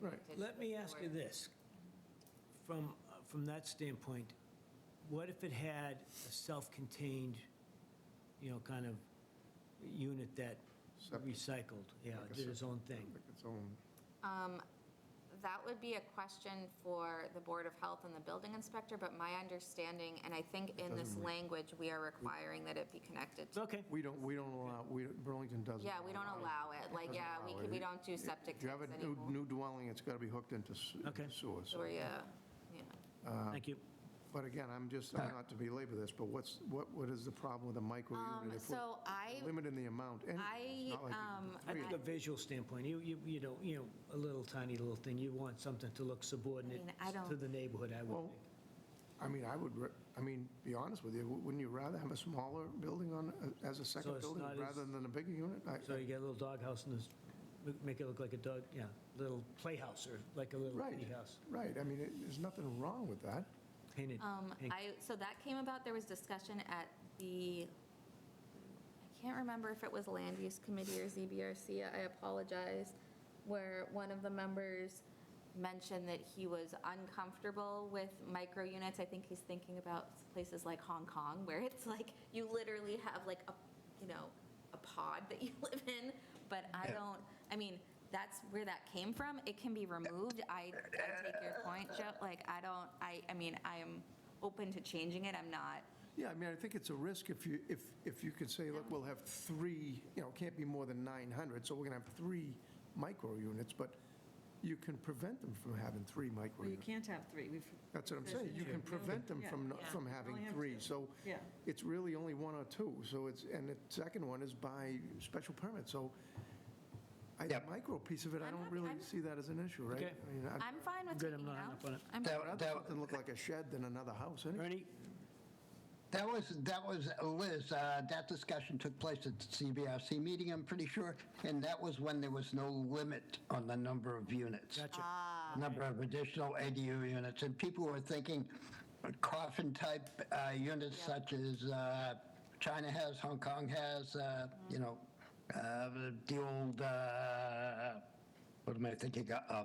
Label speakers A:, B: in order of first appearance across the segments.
A: Right.
B: Let me ask you this. From, uh, from that standpoint, what if it had a self-contained, you know, kind of unit that
A: Septic.
B: recycled, yeah,
A: Like a
B: did its own thing?
A: Like its own,
C: Um, That would be a question for the Board of Health and the building inspector, but my understanding, and I think in this
A: doesn't re-
C: language, we are requiring that it be connected to.
B: Okay,
A: we don't, we don't allow, we, Burlington doesn't.
C: Yeah, we don't allow it, like,
A: Doesn't
C: yeah, we
A: allow
C: could, we
A: it.
C: don't do septic
A: If you have
C: tanks
A: a new-
C: anymore.
A: new dwelling, it's got to be hooked into s-
B: Okay.
A: sewer. so-
C: Or, yeah, yeah.
A: Uh-huh.
B: thank you.
A: But again, I'm just, I'm not to belabor this, but what's, what, what is the problem with a micro
C: Um,
A: unit? if we're
C: So I,
A: Limiting the amount, and it's
C: I,
A: not like you can
C: um,
A: do
B: I
A: three.
B: think a visual standpoint, you, you, you know, you know, a little tiny little thing, you want something to look subordinate
C: I mean, I
B: to
C: don't-
B: the neighborhood, I would
A: Well,
B: think.
A: I mean, I would, re- I mean, be honest with you, wou- wouldn't you rather have a smaller building on, as a second
B: it's
A: building
B: not as-
A: rather than a bigger unit? I-
B: So you get a little doghouse and this- make it look like a dog, yeah, little playhouse or like a little
A: Right.
B: kitty house,
A: Right, I mean, it- there's nothing wrong with that.
B: painted.
C: um,
B: pink.
C: I, so that came about, there was discussion at the, I can't remember if it was Land Use Committee or ZBRC, I apologize, where one of the members mentioned that he was uncomfortable with micro units. I think he's thinking about places like Hong Kong, where it's like, you literally have like a, you know, a pod that you live in, but I don't, I mean, that's where that came from. It can be removed. I, I take your point, Joe. Like, I don't, I, I mean, I am open to changing it. I'm not,
A: Yeah, I mean, I think it's a risk if you, if, if you could say, look, we'll have three, you know, it can't be more than 900, so we're going to have three micro units, but you can prevent them from having three micro
D: Well, you
A: units.
D: can't have three. We've.
A: That's what I'm
D: this
A: saying,
D: is
A: you can
D: true.
A: prevent them
D: Yeah,
A: from, not-
D: yeah.
A: from
D: Only
A: having
D: have
A: three,
D: two.
A: so
D: Yeah.
A: it's really only one or two, so it's, and the second one is by special permit, so I, the
E: Yep.
A: micro piece of it, I
C: I'm
A: don't
C: happy-
A: really
C: I'm-
A: see that as an issue, right?
B: Okay.
A: I mean, I'd
C: I'm fine with
B: Good,
C: taking
B: I'm
C: it
B: not
C: out.
B: hung up on it.
C: I'm-
E: That-
A: rather
E: that-
A: something look like a shed than another house, anyway.
B: Ernie,
E: That was, that was, Liz, uh, that discussion took place at the CBRC meeting, I'm pretty sure, and that was when there was no limit on the number of units.
B: gotcha.
E: Number of additional ADU units, and people were thinking coffin-type uh, units such as uh, China has, Hong Kong has, uh, you know, uh, the old, uh, what am I thinking, of? Uh,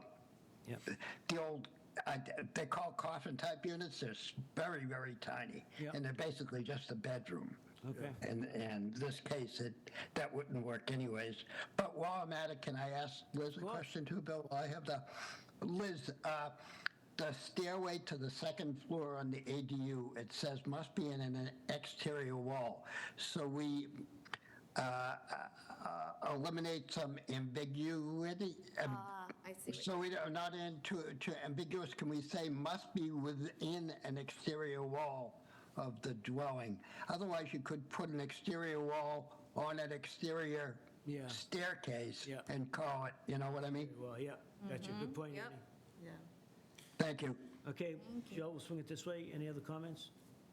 B: Yep.
E: the old, I- they call coffin-type units, they're s- very, very tiny.
B: Yeah.
E: And they're basically just a bedroom.
B: Okay.
E: And, and this case, it, that wouldn't work anyways. But while I'm at it, can I ask Liz a
B: course.
E: question too, Bill? I have the, Liz, uh, the stairway to the second floor on the ADU, it says must be in an exterior wall. So we uh, uh, eliminate some ambiguity, um,
C: Ah, I see. what-
E: so we are not into, to ambiguous, can we say must be within an exterior wall of the dwelling? Otherwise, you could put an exterior wall on an exterior
B: Yeah.
E: staircase
B: Yeah.
E: and call it, you know what I mean?
B: Well, yeah, gotcha,
D: Mm-hmm.
B: good point,
C: Yep.
B: Ernie.
D: Yeah.
E: Thank you.
B: Okay, Joe, we'll swing it this way. Any other comments?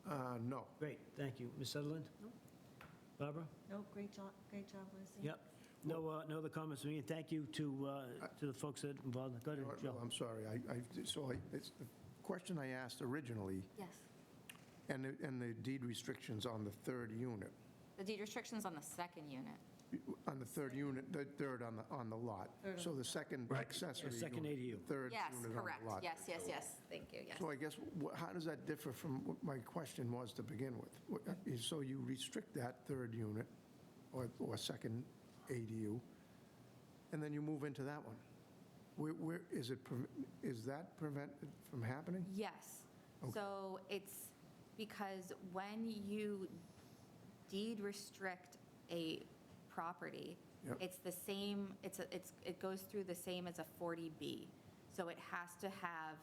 A: Uh, no.
B: Great, thank you. Ms. Sutherland? Barbara?
D: No, great job, great job, Lucy.
B: Yep. No, uh, no other comments from me, and thank you to, uh, to the folks that involved. Go ahead, Joe.
A: Well, I'm sorry, I, I, so I, it's the question I asked originally,
C: Yes.
A: and, the- and the deed restrictions on the third unit,
C: The deed restriction's on the second unit.
A: on the third unit, the third on the, on the lot.
D: Third on
A: So the second
E: Right.
A: accessory
B: Yeah, second
A: unit,
B: ADU.
A: Third
C: Yes,
A: unit on the
C: correct.
A: lot.
C: Yes, yes, yes. Thank you, yes.
A: So I guess, wh- how does that differ from what my question was to begin with? What- uh, is- So you restrict that third unit, or, or second ADU, and then you move into that one? Where, where, is it, pre- is that prevented from happening?
C: Yes. So it's because when you deed restrict a property,
A: Yep.
C: it's the same, it's, a- it's, it goes through the same as a 40B. So it has to have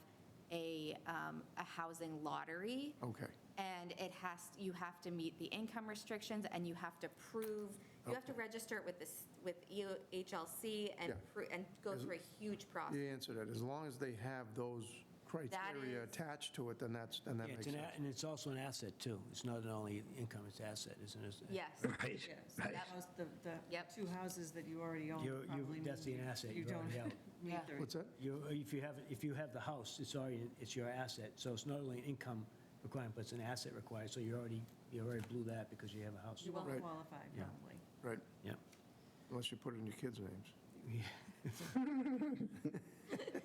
C: a, um, a housing lottery.
A: Okay.
C: And it has, you have to meet the income restrictions, and you have to prove, you have to register it with this, with E EHLC and,
A: Yeah.
C: pro- and go through a huge process.
A: You answered it. As long as they have those criteria
C: is-
A: attached to it, then that's, then that
B: Yeah,
A: makes
B: it's an
A: sense.
B: a- And it's also an asset, too. It's not only income, it's asset, isn't it?
C: Yes.
E: Right,
D: Yeah, so
E: right.
D: that was the, the
C: Yep.
D: two houses that you already own
B: You're- you-
D: probably mean
B: that's the
D: you-
B: asset
D: You
B: you
D: don't
B: already
D: meet
B: own.
C: Yeah.
D: their-
A: What's that?
B: You, if you have, if you have the house, it's already, it's your asset, so it's not only an income requirement, but it's an asset required, so you already, you already blew that because you have a house.
D: You won't
A: Right.
D: qualify,
B: Yeah.
D: probably.
A: Right,
B: Yeah.
A: unless you put it in your kids' names.